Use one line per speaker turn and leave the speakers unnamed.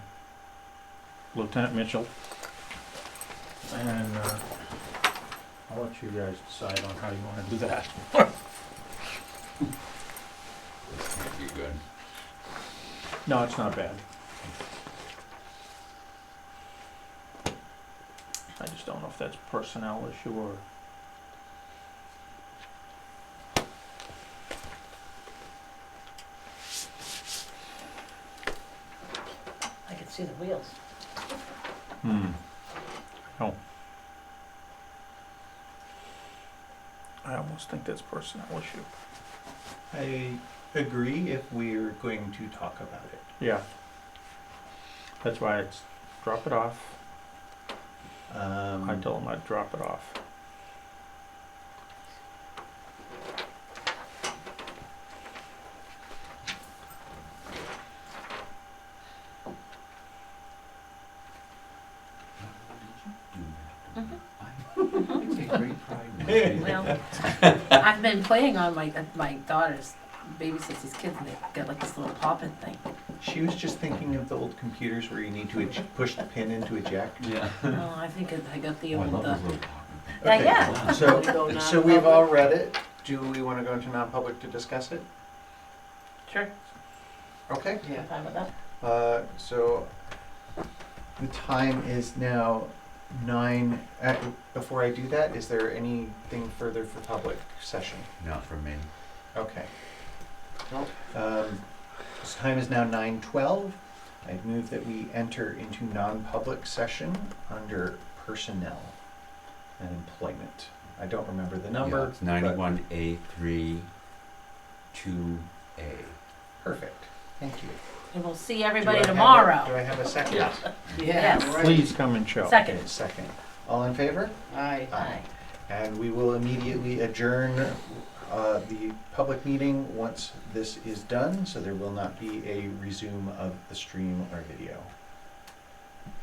Lieutenant Mitchell. And uh, I'll let you guys decide on how you want to do that.
You good?
No, it's not bad. I just don't know if that's a personnel issue or.
I can see the wheels.
Hmm. Oh. I almost think that's personnel issue.
I agree if we're going to talk about it.
Yeah. That's why it's drop it off.
Um,
I told him I'd drop it off.
Mm-hmm. I take great pride in
Well, I've been playing on my uh, my daughter's babysits these kids, and they got like this little pop-in thing.
She was just thinking of the old computers where you need to ej- push the pin into eject.
Yeah.
Oh, I think I got the
Oh, I
old.
love
uh,
those little pockets.
Yeah,
Okay,
yeah.
So,
We go
so we've
non-public.
all read it. Do we want to go into non-public to discuss it?
Sure.
Okay.
Yeah. Fine with that.
Uh, so the time is now nine. Uh, before I do that, is there anything further for public session?
Not for me.
Okay. Um, This time is now nine twelve. I move that we enter into non-public session under personnel and employment. I don't remember the
Yeah,
number.
It's
but-
ninety-one A three, two A.
Perfect, thank you.
And we'll see
Do I
everybody
have a- Do
tomorrow.
I have a second?
Yeah.
Yes.
Please come and show.
Second.
Okay, second. All in favor?
Aye.
Aye.
And we will immediately adjourn uh, the public meeting once this is done, so there will not be a resume of the stream or video.